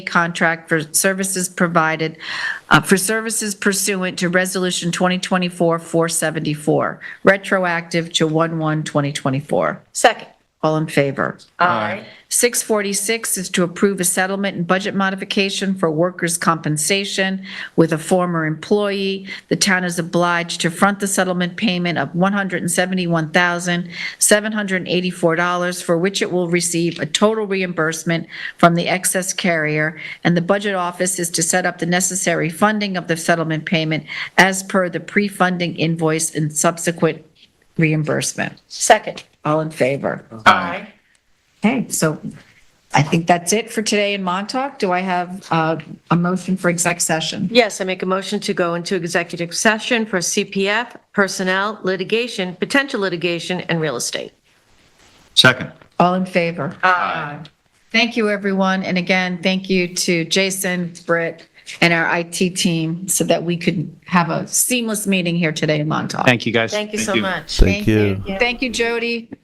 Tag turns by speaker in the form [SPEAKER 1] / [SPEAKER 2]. [SPEAKER 1] contract for services provided, uh, for services pursuant to Resolution 2024-474, retroactive to 1/1/2024.
[SPEAKER 2] Second.
[SPEAKER 1] All in favor?
[SPEAKER 2] Aye.
[SPEAKER 1] 646 is to approve a settlement and budget modification for workers' compensation with a former employee. The town is obliged to front the settlement payment of $171,784, for which it will receive a total reimbursement from the excess carrier, and the budget office is to set up the necessary funding of the settlement payment as per the pre-funding invoice and subsequent reimbursement.
[SPEAKER 2] Second.
[SPEAKER 1] All in favor?
[SPEAKER 2] Aye.
[SPEAKER 1] Okay, so I think that's it for today in Montauk. Do I have uh, a motion for exec session?
[SPEAKER 2] Yes, I make a motion to go into executive session for CPF, personnel, litigation, potential litigation, and real estate.
[SPEAKER 3] Second.
[SPEAKER 1] All in favor? Aye. Thank you, everyone. And again, thank you to Jason, Britt, and our IT team so that we could have a seamless meeting here today in Montauk.
[SPEAKER 4] Thank you, guys.
[SPEAKER 2] Thank you so
[SPEAKER 3] Thank you.
[SPEAKER 2] much.
[SPEAKER 1] Thank you. Thank you, Jody.